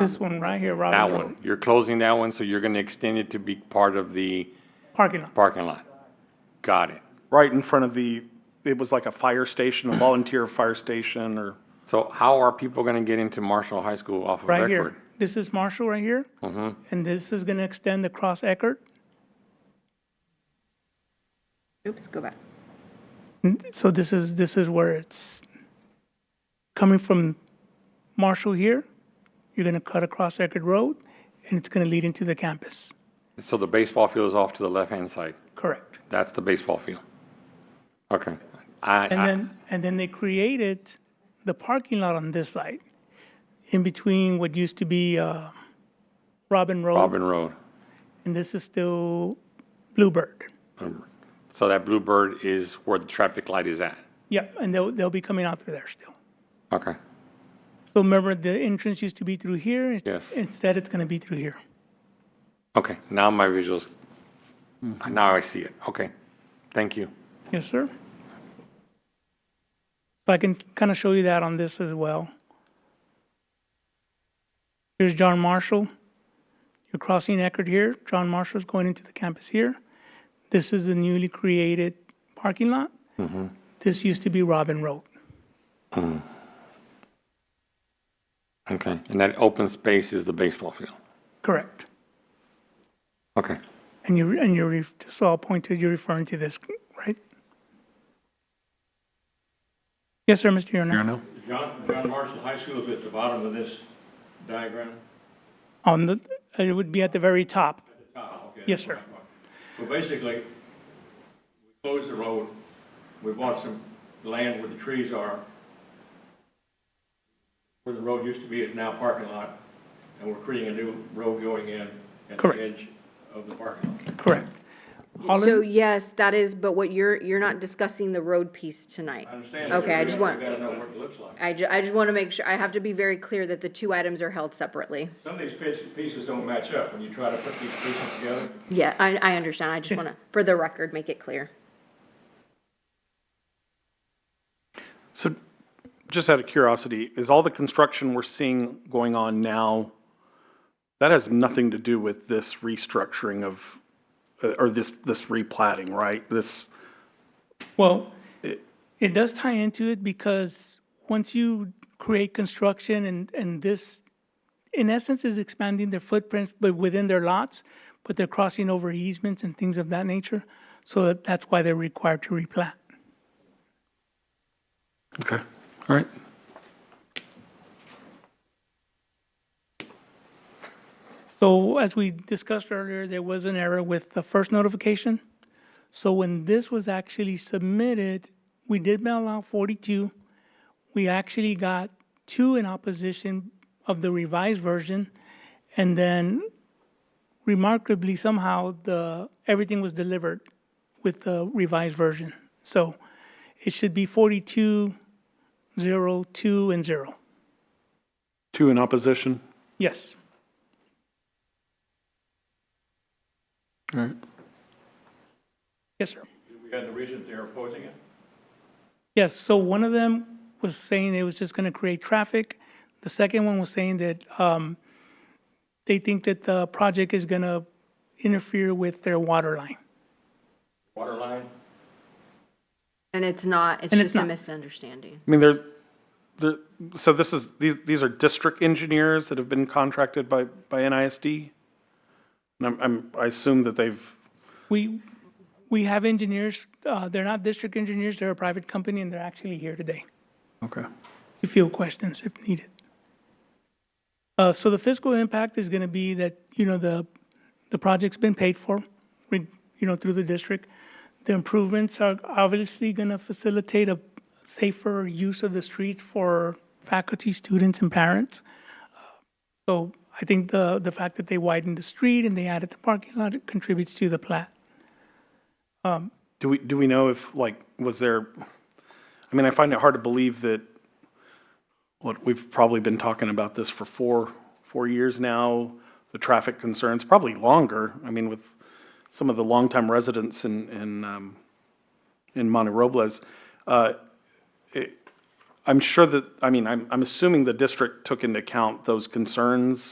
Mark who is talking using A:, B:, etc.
A: This one right here, Robert.
B: That
A: Road,
B: one, you're closing that one, so you're gonna extend it to be part of the
A: Parking lot.
B: parking lot. Got it.
C: right in front of the, it was like a fire station, a volunteer fire station or,
B: So how are people gonna get into Marshall High School off of
A: Right
B: Eckerd?
A: here. This is Marshall right here.
B: Mm-hmm.
A: And this is gonna extend across Eckerd.
D: Oops, go back.
A: N- So this is, this is where it's coming from Marshall here. You're gonna cut across Eckerd Road and it's gonna lead into the campus.
B: So the baseball field is off to the left-hand side.
A: Correct.
B: That's the baseball field. Okay. I,
A: And
B: I,
A: then, and then they created the parking lot on this side, in between what used to be, uh, Robin Road,
B: Robin Road.
A: and this is still Bluebird.
B: So that Bluebird is where the traffic light is at.
A: Yep, and they'll, they'll be coming out through there still.
B: Okay.
A: So remember, the entrance used to be through here? it's-
B: Yes.
A: Instead, it's gonna be through here.
B: Okay, now my visuals,
A: Mm-hmm.
B: now I see it. Okay. Thank you.
A: Yes, sir. So I can kind of show you that on this as well. Here's John Marshall. You're crossing Eckerd here. John Marshall's going into the campus here. This is the newly created parking lot. This used to be Robin Road.
B: Okay. And that open space is the baseball field.
A: Correct.
B: Okay.
A: And you, and you're, ref- so I'll point to, you're referring to this, right? Yes, sir, Mr. Yurnax.
E: John, John Marshall High School is at the bottom of this diagram?
A: On the, it would be at the very top.
E: Ah, okay.
A: Yes, sir.
E: So basically, we closed the road, we bought some land where the trees are, where the road used to be is now parking lot, and we're creating a new road going in at the
A: Correct.
E: edge of the parking lot.
A: Correct. All
D: So
A: in-
D: yes, that is, but what you're, you're not discussing the road piece tonight.
E: I understand.
D: Okay, I just want,
E: We've got to know what it looks like.
D: I ju- I just want to make sure, I have to be very clear that the two items are held separately.
E: Some of these pieces- pieces don't match up when you try to put these pieces together.
D: Yeah, I, I understand. I just want to, for the record, make it clear.
C: so just out of curiosity, is all the construction we're seeing going on now, that has nothing to do with this restructuring of, uh, or this, this replating, right? This,
A: Well, it does tie into it because once you create construction and, and this, in essence, is expanding their footprints, but within their lots, but they're crossing over easements and things of that nature. So that- that's why they're required to replat.
C: okay, all right.
A: So as we discussed earlier, there was an error with the first notification. So when this was actually submitted, we did mail out 42. We actually got two in opposition of the revised version. And then remarkably, somehow, the, everything was delivered with the revised version. So it should be 42, 0, 2, and 0.
C: Two in opposition,
A: Yes.
C: all right.
A: Yes, sir.
E: We had the reasons they're opposing it.
A: Yes, so one of them was saying it was just going to create traffic. The second one was saying that um, they think that the project is going to interfere with their water line.
E: Water line,
D: And it's not, it's
A: And it's
D: just a
A: not.
D: misunderstanding.
C: I mean, there's, there, so this is, these, these are district engineers that have been contracted by, by NISD? And I'm, I'm, I assume that they've,
A: We, we have engineers, uh, they're not district engineers, they're a private company, and they're actually here today.
C: okay.
A: to field questions if needed. Uh, so the fiscal impact is going to be that, you know, the, the project's been paid for, we- you know, through the district. The improvements are obviously going to facilitate a safer use of the streets for faculty, students, and parents. So I think the, the fact that they widened the street and they added the parking lot contributes to the plat.
C: Do we, do we know if, like, was there, I mean, I find it hard to believe that, what, we've probably been talking about this for four, four years now, the traffic concerns, probably longer. I mean, with some of the longtime residents in, in, um, in Monte Robles, uh, it, I'm sure that, I mean, I'm, I'm assuming the district took into account those concerns